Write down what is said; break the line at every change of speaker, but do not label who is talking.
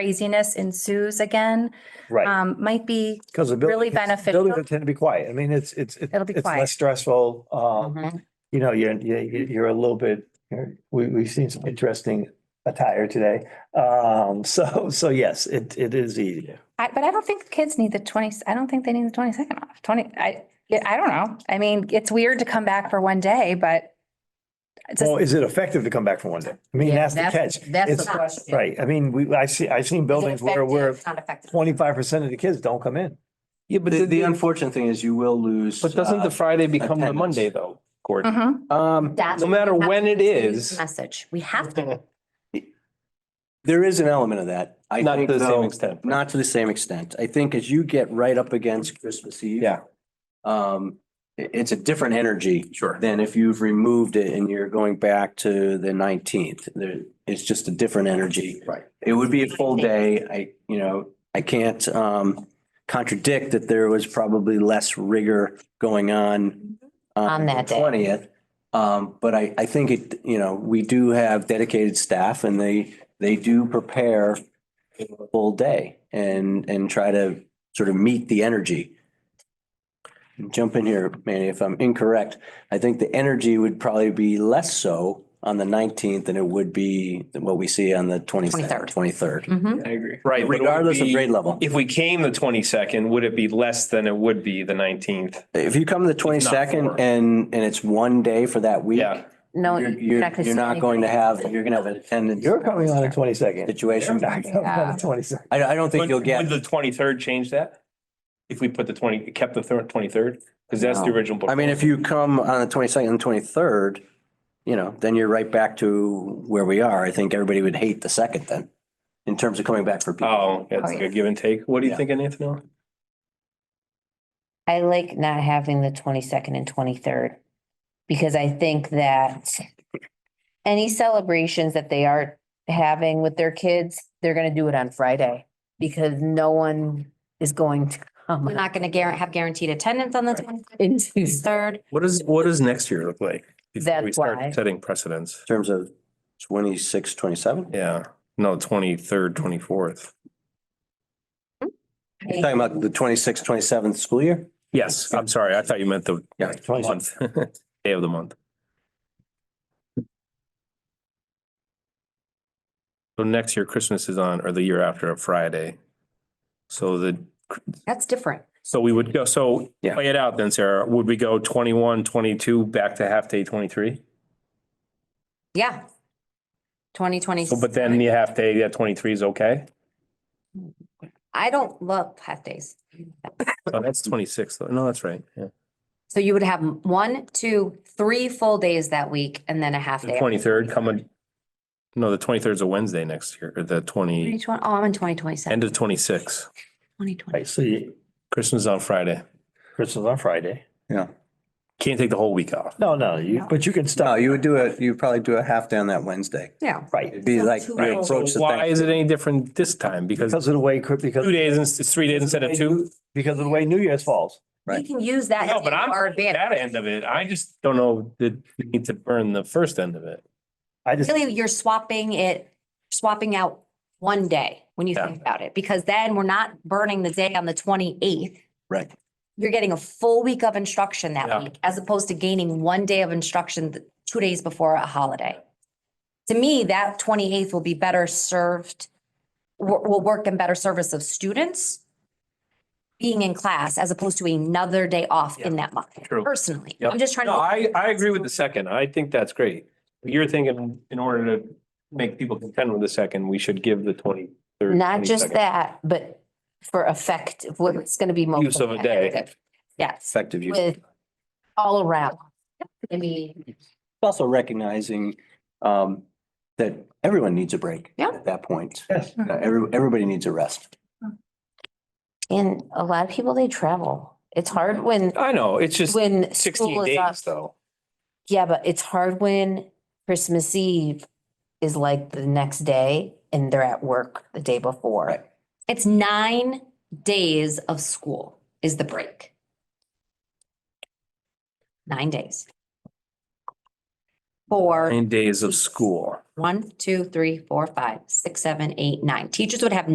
craziness ensues again,
Right.
um, might be,
Because the
really
building,
beneficial.
buildings tend to be quiet. I mean, it's, it's, it's
It'll be
it's
quiet.
less stressful. Um,
Mhm.
you know, you're, you're, you're a little bit, you're- we, we've seen some interesting attire today. Um, so, so yes, it, it is easier.
I, but I don't think kids need the twenty, I don't think they need the twenty-second off, twenty, I, yeah, I don't know. I mean, it's weird to come back for one day, but it's
Well,
just,
is it effective to come back from one day? I mean,
Yeah,
that's the catch.
That's the
It's-
question.
Right. I mean, we, I see, I've seen buildings where, where
Not effective.
twenty-five percent of the kids don't come in.
Yeah, but
The,
it-
the
it-
unfortunate thing is you will lose.
but doesn't the
uh,
Friday become the
attendance.
Monday though, Gordon?
Mhm.
Um,
That's
no
what we
matter
have
when
to
it
do
is,
Message, we have to.
uh, There is an element of that. I
not to
think,
the same
though,
extent.
Not to the same extent. I think as you get right up against Christmas Eve.
Yeah.
Um, i- it's a different energy.
Sure.
Than if you've removed it and you're going back to the nineteenth. There, it's just a different energy.
Right.
It would be a full day. I, you know, I can't um contradict that there was probably less rigor going on. uh,
On that day.
Twentieth. Um, but I, I think it, you know, we do have dedicated staff and they, they do prepare for a full day and, and try to sort of meet the energy. Jump in here, Manny, if I'm incorrect. I think the energy would probably be less so on the nineteenth than it would be than what we see on the twenty-third, twenty-third.
Mhm.
I agree. Right. but it would
Regardless of
be-
grade level.
If we came the twenty-second, would it be less than it would be the nineteenth?
If you come the
four.
twenty-second and, and it's one day for that week,
Yeah.
Mm-hmm.
No.
you're,
you're
you're,
gonna
you're
see
not going to
anybody.
have, you're gonna have an attendance
You're coming on the twenty-second.
situation. I,
Yeah.
Twenty-second.
I don't think you'll get.
Would the twenty-third change that? If we put the twenty, kept the twenty-third, because that's the
No.
original.
I mean, if you come on the twenty-second and twenty-third, you know, then you're right back to where we are. I think everybody would hate the second then, in terms of coming back for people.
Oh, that's
Oh,
like
yeah.
a give and take. What do you
Yeah.
think, Anthony?
I like not having the twenty-second and twenty-third. Because I think that any celebrations that they are having with their kids, they're gonna do it on Friday. Because no one is going to
We're
come
not gonna guar- have guaranteed attendance on the
into,
twenty-third.
What is, what does next year look like? before we
That's
start
why.
Setting precedents.
In terms of twenty-six, twenty-seven?
Yeah, no, twenty-third, twenty-fourth.
You're talking about the twenty-sixth, twenty-seventh school year?
Yes, I'm sorry. I thought you meant the
Yeah,
month, day of the month. So next year Christmas is on, or the year after a Friday. So the,
That's different.
so we would go, so
Yeah.
play it out then, Sarah. Would we go 21, 22, back to half day twenty-three?
Yeah. Twenty twenty.
But then the half day, yeah, twenty-three is okay?
I don't love half days.
Oh, that's twenty-six though. No, that's right. Yeah.
So you would have one, two, three full days that week and then a half
The
day.
twenty-third coming. No, the twenty-third is a Wednesday next year, or the twenty,
Twenty twenty, oh, I'm in twenty twenty-seven,
end of twenty-six.
twenty twenty.
Right, so you,
Christmas is on Friday.
Christmas on Friday.
Can't take the whole week off.
No, no, you, but you can
No,
stop.
you would do it, you probably do a half day on that Wednesday.
Yeah.
Right.
It'd be like,
Two
you
full
So
approach the
why
thing.
is it any different this time? Because
Because of the way, cri-
two
because,
days, ins- it's three days instead of two?
because of the way New Year's falls.
We
Right.
can use that.
No, but
to
I'm,
our advantage.
that end of it, I just don't know that we need to burn the first end of it.
I just,
Really, you're swapping it, swapping out one day when you
Yeah.
think about it, because then we're not burning the day on the twenty-eighth.
Right.
You're getting a full week of instruction
Yeah.
that week, as opposed to gaining one day of instruction th- two days before a holiday. To me, that twenty-eighth will be better served, will, will work in better service of students being in class as opposed to another day off in that month,
True.
personally.
Yep.
I'm just trying to.
No, I, I agree with the second. I think that's great. But You're thinking in order to make people contend with the second, we should give the twenty-third.
not just that, but for effective, what's gonna be most.
Use of a day.
effective. Yes,
Effective use.
with all around. I mean,
Also recognizing um that everyone needs a break.
Yeah.
At that point.
Yes.
Uh, Every, everybody needs a rest.
and a lot of people, they travel. It's hard when,
I know, it's just
when
sixteen
school is off.
days though.
Yeah, but it's hard when Christmas Eve is like the next day and they're at work the day before.
Right.
It's nine days of school is the break. Nine days. for
Nine days of school.
one, two, three, four, five, six, seven, eight, nine. Teachers would have